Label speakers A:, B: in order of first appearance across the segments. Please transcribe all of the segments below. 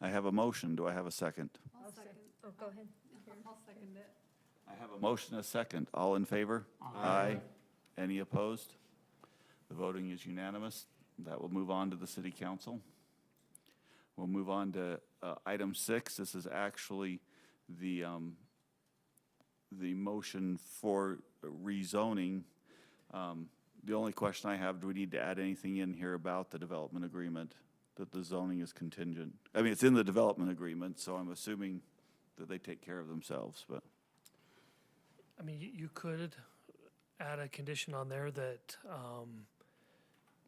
A: I have a motion. Do I have a second?
B: I'll second,
C: Oh, go ahead.
B: I'll second it.
A: I have a motion, a second. All in favor? Aye. Any opposed? The voting is unanimous. That will move on to the city council. We'll move on to uh, item six. This is actually the, um, the motion for rezoning. Um, The only question I have, do we need to add anything in here about the development agreement, that the zoning is contingent? I mean, it's in the development agreement, so I'm assuming that they take care of themselves, but.
D: I mean, you, you could add a condition on there that, um,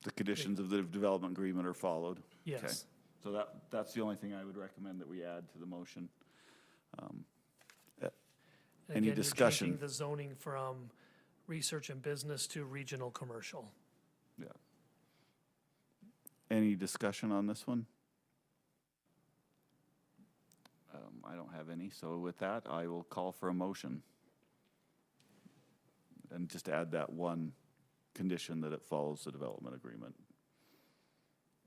A: The conditions of the development agreement are followed. Okay.
D: yes.
A: So that, that's the only thing I would recommend that we add to the motion.
D: And
A: Any
D: again, you're
A: discussion?
D: changing The zoning from research and business to regional commercial.
A: Yeah. Any discussion on this one? Um, I don't have any, so with that, I will call for a motion. And just add that one condition that it follows the development agreement.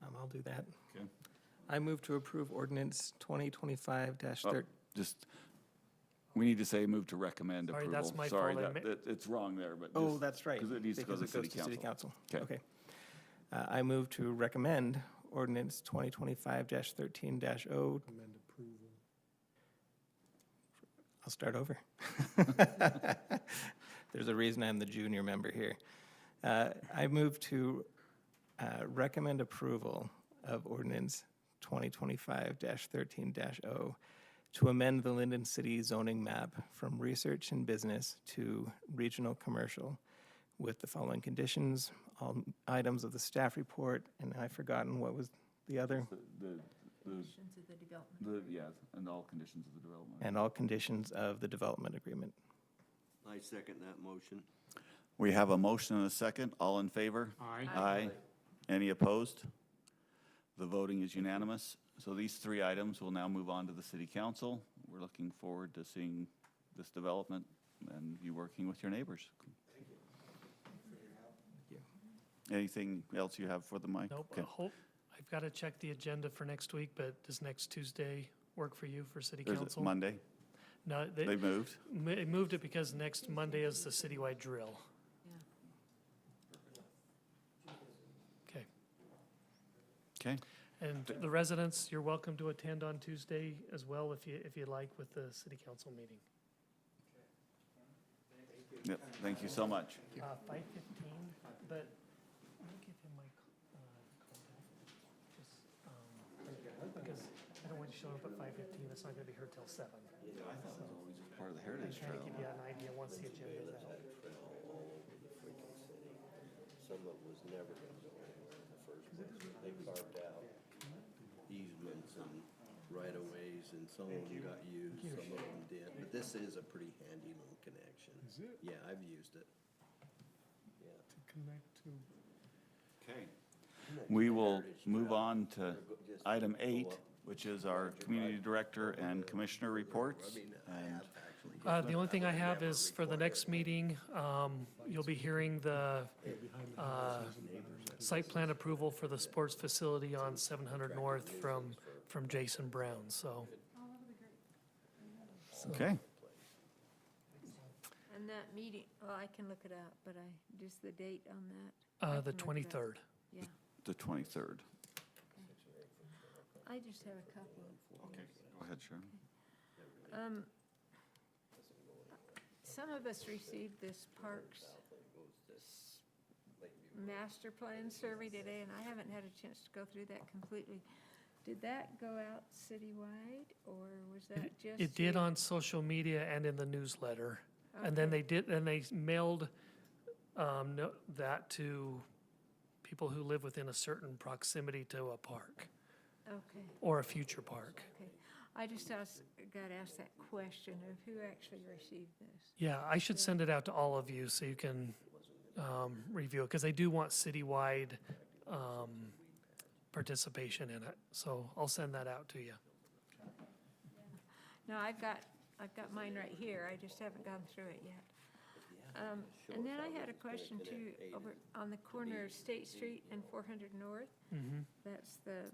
E: Um, I'll do that.
A: Okay.
E: I move to approve ordinance twenty twenty-five dash
A: Oh,
E: thirteen.
A: Just, we need to say move to recommend
D: Sorry,
A: approval.
D: that's my
A: Sorry,
D: fault. I
A: that-
D: mi-
A: that- it's wrong there, but
E: Oh,
A: just-
E: that's right.
A: Because it needs to go to the city
E: goes
A: council. Okay.
E: Okay. Uh, I move to recommend ordinance twenty twenty-five dash thirteen dash oh. O. Recommend approval. I'll start over. There's a reason I'm the junior member here. Uh, I move to, uh, recommend approval of ordinance twenty twenty-five dash thirteen dash oh. O to amend the Linden City zoning map from research and business to regional commercial with the following conditions, all items of the staff report, and I've forgotten what was the other,
A: The, the,
B: Into the development.
A: the, yeah, and all conditions of the development.
E: and all conditions of the development agreement.
F: I second that motion.
A: We have a motion and a second. All in favor?
G: Aye.
A: Aye. Any opposed? The voting is unanimous. So these three items will now move on to the city council. We're looking forward to seeing this development and you working with your neighbors. Anything else you have for the mic?
D: Nope, I
A: Okay.
D: hope, I've got to check the agenda for next week, but does next Tuesday work for you for city
A: There's a-
D: council?
A: Monday,
D: No,
A: they
D: they,
A: moved.
D: mo- it moved it because next Monday is the citywide drill. Okay,
A: Okay,
D: and the residents, you're welcome to attend on Tuesday as well if you, if you like with the city council meeting.
A: yep, thank you so much.
D: Uh, five fifteen, but let me give him my, c- uh, contact, just, um, because I don't want you showing up at five fifteen, it's not gonna be here till seven.
A: Part of the Heritage
D: Trying to give you an idea once the agenda's out.
F: Some of it was never gonna go anywhere in the first place. They carved out easements and right-of-ways and some of them got used, some of them did. But this is a pretty handy little connection. Is it? Yeah, I've used it. Yeah.
A: Okay. We will move on to
F: Just
A: item
F: pull
A: eight,
F: up.
A: which is our community director and commissioner reports.
F: I mean, I
A: And
F: have actually.
D: Uh, the only thing I
F: would
D: have
F: never
D: is for the
F: require
D: next
F: it.
D: meeting, um, you'll be hearing the, uh, site plan approval for the sports facility on seven hundred north from, from Jason Brown, so.
A: Okay,
C: And that meeting, well, I can look it up, but I, just the date on that. I can
D: Uh, the
C: look it up.
D: twenty-third.
C: Yeah,
A: the 23rd.
C: I just have a couple.
A: Okay, go ahead, Sharon.
C: Um, Some of us received this parks s- master plan survey today, and I haven't had a chance to go through that completely. Did that go out citywide, or was that just?
D: It did
C: you?
D: on social media and in the newsletter. And then they did, and they mailed um, no- that to people who live within a certain proximity to a park
C: Okay.
D: or a future park.
C: Okay, I just asked, got asked that question of who actually received this.
D: Yeah, I should send it out to all of you so you can um, review it, because they do want citywide um, participation in it. So I'll send that out to you.
C: No, I've got, I've got mine right here, I just haven't gone through it yet. Um, And then I had a question too, over on the corner of State Street and 400 North. That's the